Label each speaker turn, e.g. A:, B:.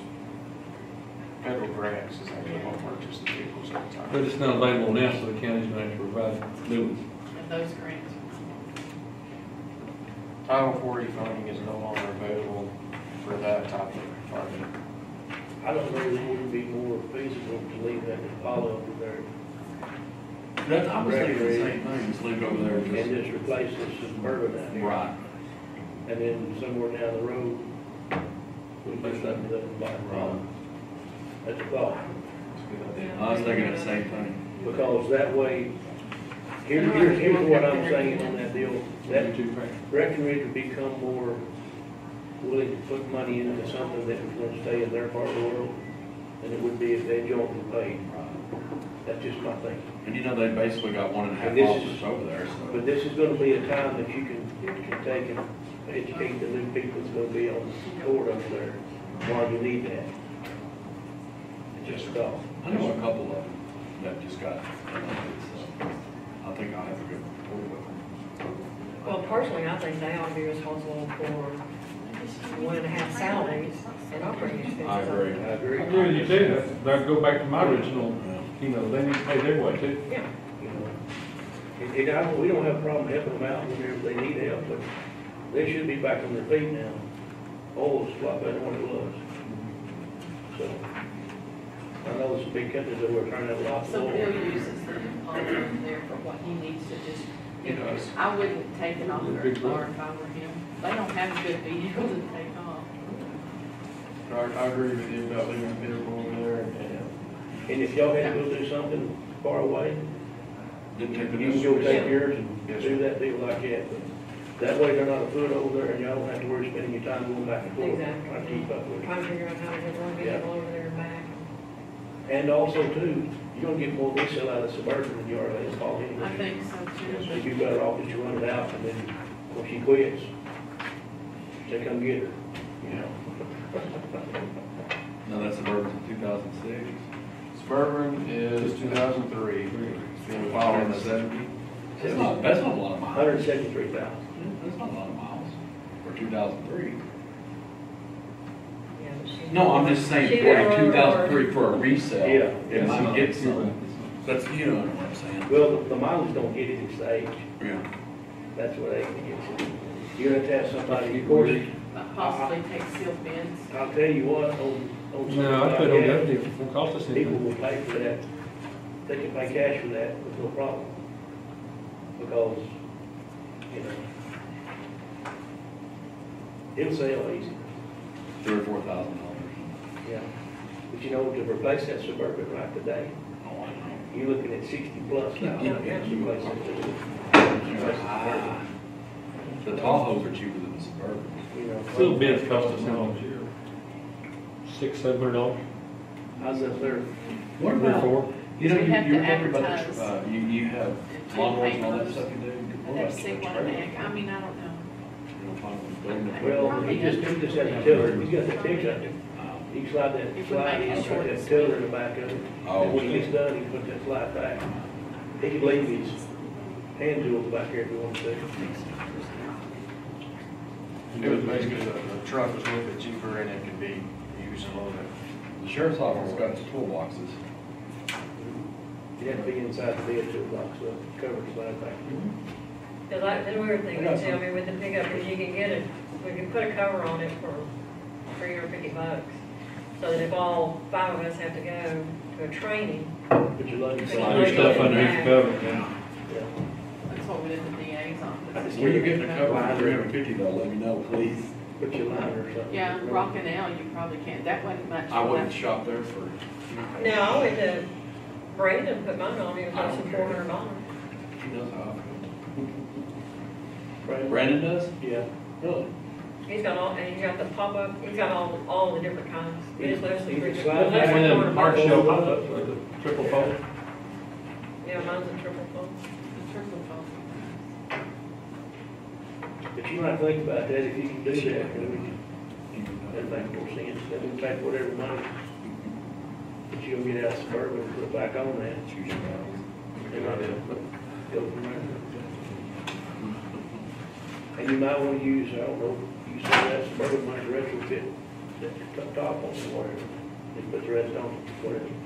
A: federal grants is actually what purchases the vehicles over
B: But
A: time.
B: it's not available now, so the county's gonna have to provide new ones.
C: and those grants.
A: Title forty funding is no longer available for that type of funding.
D: I don't know if it would be more feasible to leave that to follow up there
E: That, I was thinking the same thing, just leave it over there,
D: and
E: and
D: just replace this suburban out
E: just,
D: here.
E: right,
D: And then somewhere down the road, we do something up in Black Rock.
E: right.
D: That's a thought,
E: I was thinking the same thing.
D: because that way, here, here's, here's what I'm saying on that deal. That
B: Two grand.
D: Breckenridge would become more willing to put money into something that was gonna stay in their part of the world than it would be if they jointly paid. That's just my thing.
E: And you know, they basically got one and a half
D: And this is-
E: officers over there, so.
D: But this is gonna be a time that you can, you can take and educate the new people that's gonna be on board over there, why you need that. It's Just a thought.
E: I know a couple of them that just got, so I think I'll have to go.
F: Well, personally, I think they ought to be responsible for one and a half salaries and operating expenses.
E: I
D: I
E: agree.
B: I
D: agree.
B: agree with you too, That- that'd go back to my original, you know, they need to pay their way too.
F: Yeah,
D: You know, And, and I, we don't have a problem helping them out whenever they need help, but they should be back on their feet now. Oh, it's a lot better than what it was. So, I know it's a big country that we're trying to have lots of.
C: So Bill uses the deposit there for what he needs to just, you know, I wouldn't take it off their car if I were him. They don't have a good vehicle to take off.
A: I, I agree with you about leaving the vehicle over there and
D: And if y'all had to go do something far away,
E: Didn't
D: you
E: take the.
D: can go take
E: notice.
D: yours and do that deal like that. but That way they're not a foot over there and y'all don't have to worry spending your time going back and forth.
F: Exactly.
D: Trying to keep up with it.
F: trying to figure out how to get one vehicle over there and back.
D: And also too, you're gonna get more resale out of suburban than you are out of small anyway.
C: I think so too,
D: So
C: but
D: you better off that you run it out and then, when she quits, they come get her, you know?
E: No, that's suburban two thousand six.
A: Suburban is two thousand three, being
E: Wow,
A: filed in
E: that's seventy. That's not, that's not a lot of miles.
D: Hundred seventy-three thousand.
E: That's not a lot of miles for two thousand three.
F: Yeah, but she-
E: No, I'm just saying,
F: She did
E: forty-two thousand
F: her-
E: three for a resale.
D: Yeah.
E: It might get
B: It's not-
E: some, that's, you know what I'm saying.
D: Well, the- the mileage don't get it, it's the age,
E: Yeah.
D: that's what age gets it. You're gonna have to have somebody, of course,
B: it's
C: possibly take sealed bins.
D: I'll tell you what, on, on
B: not-
D: something
B: No, I put on
D: like
B: the
D: that,
B: other deal, it won't cost us
D: people
B: anything.
D: will pay for that, they can pay cash for that with no problem. Because, you know, it'll sell easy.
E: Three or four thousand dollars.
D: Yeah. But you know, to replace that Suburban right today,
E: Oh, I know.
D: you're looking at sixty plus now.
E: Yeah,
D: to
E: yeah.
D: replace it.
E: Ah, The Tahoes are cheaper than the Suburban.
D: You know,
B: Little bits cost us how much? Six, seven hundred dollars,
D: I was up there,
E: What
B: three,
E: about,
B: four.
E: you know,
C: We
E: you,
C: have
E: you
C: to
E: remember about
C: advertise.
E: the, uh, you, you have
C: two
E: lawnmowers and all that
C: papers.
E: stuff you do?
C: I'd have to see one in the back. I mean, I don't know.
D: well, you just do this as a tiller, you got the pickup, you slide
C: If
D: that
C: we
D: slide,
C: make it
D: you put
C: short
D: that
C: and
D: tiller
C: sweet.
D: in the back of it.
E: Oh.
D: And when he's done, he put that slide back. He could leave his hand tools back here if he wanted to.
A: It was basically, the, the truck was a little bit cheaper and it could be used a little bit.
E: The sheriff's office got its toolboxes.
D: You'd have to be inside the bed to lock the cover slide back.
F: Cause I, then we were thinking, too, I mean, with the pickup, if you can get it, we could put a cover on it for three or fifty bucks. So that if all five of us have to go to a training,
D: Put your luggage
F: Put your
D: slide.
B: There's stuff underneath the cover.
D: Yeah.
C: That's what we did at the DA's office.
E: Where you getting a cover for three hundred fifty though, let me know, please.
D: Put your liner or something.
C: Yeah, Rockin' L, you probably can't. That wasn't much.
E: I wouldn't shop there for.
F: no, I went to Brandon, put mine on, it was also four hundred dollars.
E: She knows how I feel.
D: Right.
E: Brandon does?
D: Yeah.
E: Really?
F: He's got all, and he's got the pop-up, he's got all, all the different kinds. We just left some.
D: You can
F: free-
D: slide
F: we
B: I
D: back
F: left some
B: went in
F: for the
B: Mark
F: box.
B: Shell pop-ups, like the triple fold.
F: Yeah, mine's a triple fold.
C: The triple phone.
D: But you might think about that, if you can do that, then we can That'd
E: Even
D: make more sense, that would take whatever money that you'll get out of suburban, and put back on that,
E: though, Choose your battles.
D: and I'll go from there. And you might wanna use, I don't know, use some of that suburban money to retrofit, that top on or whatever, and put the rest on, whatever.